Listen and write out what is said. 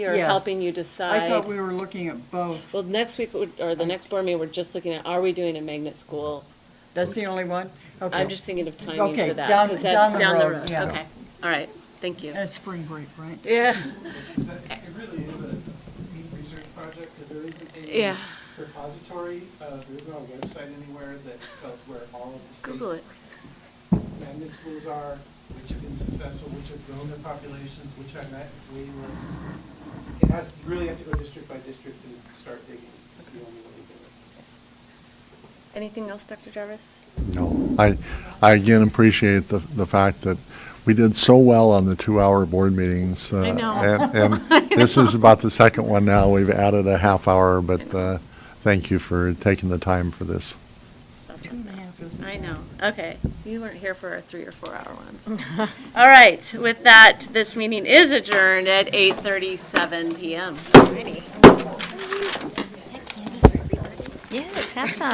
or Yes. helping you I thought decide? we were looking at both. Well, next week, would- or the next board meeting, we're just looking at, are we doing a magnet school? That's the only one? Okay. I'm just thinking of timing Okay, for that. down- 'cause that's down the road, yeah. Okay, all right, thank you. And it's spring break, right? Yeah, Is that- It really is a deep research project, because there isn't any Yeah. repository, uh, there is no website anywhere that tells where all of the state Google it. magnet schools are, which have been successful, which have grown their populations, which are not was. It has, you really have to go district by district and start digging, it's the only way to do it. Anything else, Dr. Jarvis? No, I, I again appreciate the, the fact that we did so well on the two-hour board meetings. uh, I know. And, and this is about the second one now. We've added a half hour, but, uh, thank you for taking the time for this. Two and a half, isn't it? I know, okay. You weren't here for our three or four hour ones. Mm. All right, with that, this meeting is adjourned at 8:37 PM. Yes, have some.